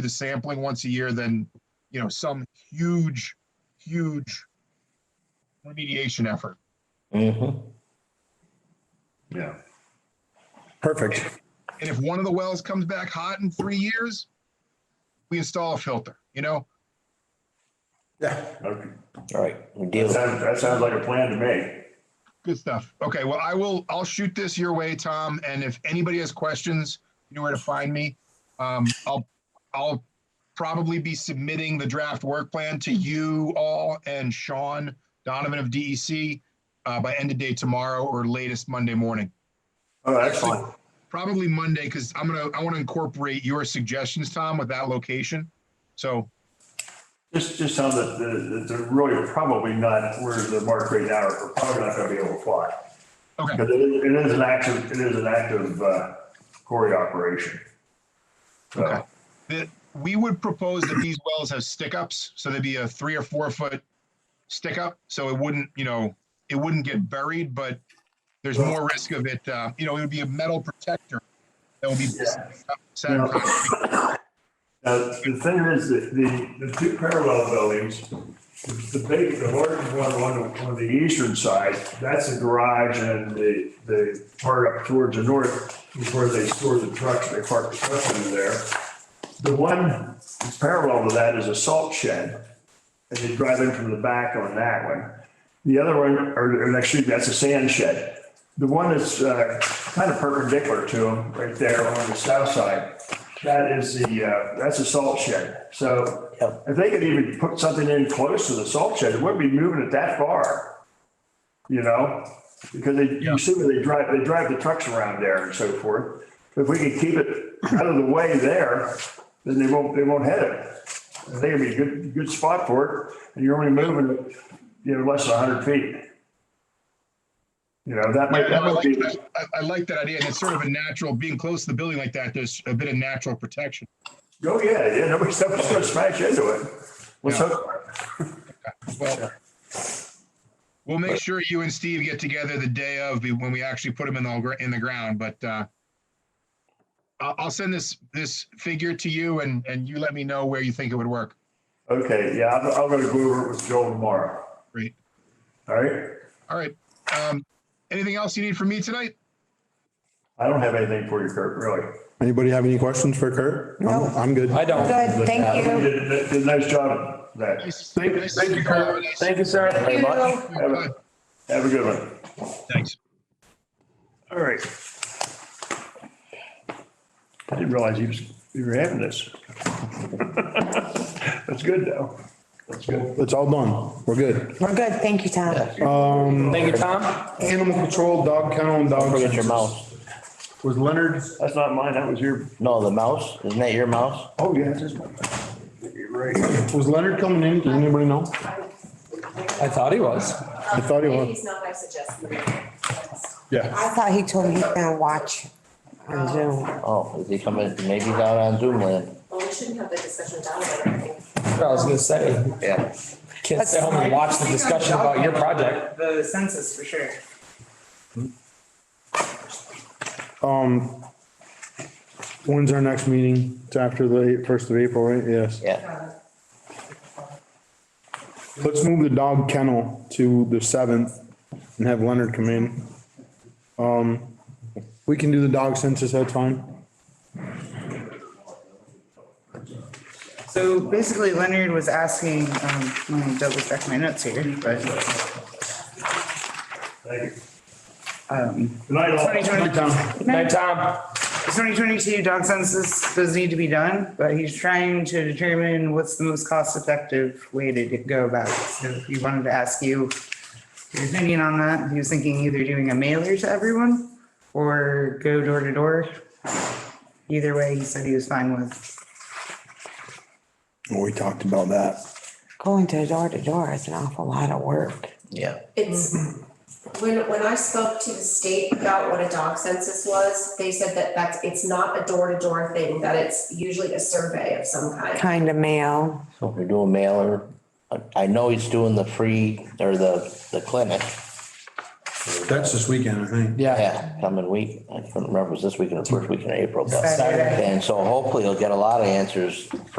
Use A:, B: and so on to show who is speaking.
A: the sampling once a year than, you know, some huge, huge remediation effort.
B: Yeah.
C: Perfect.
A: And if one of the wells comes back hot in three years, we install a filter, you know?
C: Yeah.
B: Okay.
D: All right, we
B: That
D: deal.
B: sounds, that sounds like a plan to me.
A: Good stuff. Okay, well, I will, I'll shoot this your way, Tom, and if anybody has questions, you know where to find me. Um, I'll, I'll probably be submitting the draft work plan to you all and Sean Donovan of DEC uh, by end of day tomorrow or latest Monday morning.
B: Oh, excellent.
A: Probably Monday, because I'm gonna, I want to incorporate your suggestions, Tom, with that location. So
B: Just, just sounds that, that they're really probably not where the mark right now, are probably not gonna be able to fly.
A: Okay.
B: Because it is, it is an active, it is an active, uh, quarry operation.
A: Okay.
B: So,
A: that we would propose that these wells have stick ups, so there'd be a three or four foot stick up, so it wouldn't, you know, it wouldn't get buried, but there's more risk of it, uh, you know, it would be a metal protector that would be
B: Yeah.
A: set in front of it.
B: now, Uh, the thing is, that the, the two parallel buildings, the the big, the large one, on the- on the eastern side, that's the garage and the, the part up towards the north, is where they store the trucks, they park the trucks under there. The one parallel to that is a salt shed, and you drive in from the back on that one. The other one, or, or actually, that's a sand shed. The one that's uh, kind of perpendicular to them, right there on the south side, that is the, uh, that's a salt shed. So
D: Yep.
B: if they could even put something in close to the salt shed, it wouldn't be moving it that far. You know, because they, you see where they drive, they drive the trucks around there and so forth. If we could keep it out of the way there, then they won't, they won't hit it. I think it'd be a good, good spot for it, and you're only moving it, you know, less than hundred feet. You know, that might, that
A: I
B: might
A: like
B: be,
A: that. I- I like that idea, and it's sort of a natural, being close to the building like that, there's a bit of natural protection.
B: oh, yeah, yeah, nobody's, nobody's gonna smash into it. What's
A: Yeah.
B: up?
A: Well, we'll make sure you and Steve get together the day of be- when we actually put them in the, gr- in the ground, but, uh, I'll, I'll send this, this figure to you and, and you let me know where you think it would work.
B: Okay, yeah, I'm, I'm gonna go over it with Joel tomorrow,
A: Great.
B: all right?
A: All right. Um, anything else you need from me tonight?
B: I don't have anything for you, Kurt, really.
C: Anybody have any questions for Kurt? No. I'm good.
D: I don't.
E: Good, thank
B: You
E: you.
B: did, did- did a nice job of that.
A: Thank you,
D: Thank you, sir. Very much.
E: You-
B: Have a, have a good one.
A: Thanks.
B: All right. I didn't realize you was, you were having this. That's good, though. That's good.
C: It's all done. We're good.
E: We're good, thank you, Tom.
D: Thank you, Tom.
C: Animal control, dog kennel and dog.
D: Forget your
C: census.
D: mouse.
C: Was Leonard,
B: That's not mine, that was your,
D: No, the mouse. Isn't that your mouse?
B: oh, yeah, that's mine. You're right.
C: was Leonard coming in? Does anybody know?
D: I thought he was.
C: I thought he was.
F: He's not my suggestion.
C: Yeah.
E: I thought he told me he's gonna watch on Zoom.
D: Oh, is he coming? Maybe he's out on Zoom land.
F: Well, we shouldn't have the discussion down there, I think.
G: I was gonna say,
D: Yeah.
G: can't stay home and watch the discussion about your project.
H: The census for sure.
C: Um, when's our next meeting? It's after the first of April, right? Yes.
D: Yeah.
C: Let's move the dog kennel to the seventh and have Leonard come in. Um, we can do the dog census, that's fine.
H: So basically Leonard was asking, um, let me double check my notes here, but,
B: Thank you.
H: um,
B: Good night, all.
H: 2020
G: Night, Tom.
H: 2022 dog census does need to be done, but he's trying to determine what's the most cost effective way to go about it. So he wanted to ask you your opinion on that. He was thinking either doing a mailer to everyone or go door to door. Either way, he said he was fine with.
C: We talked about that.
E: Going to door to door is an awful lot of work.
D: Yeah.
F: It's, when, when I spoke to the state about what a dog census was, they said that that's, it's not a door-to-door thing, that it's usually a survey of some kind.
E: Kind of mail.
D: So if you're doing mailer, I- I know he's doing the free or the, the clinic.
C: That's this weekend, I think.
D: Yeah, coming week, I couldn't remember, it was this weekend or first weekend of April. but-
H: Saturday.
D: And so hopefully you'll get a lot of answers for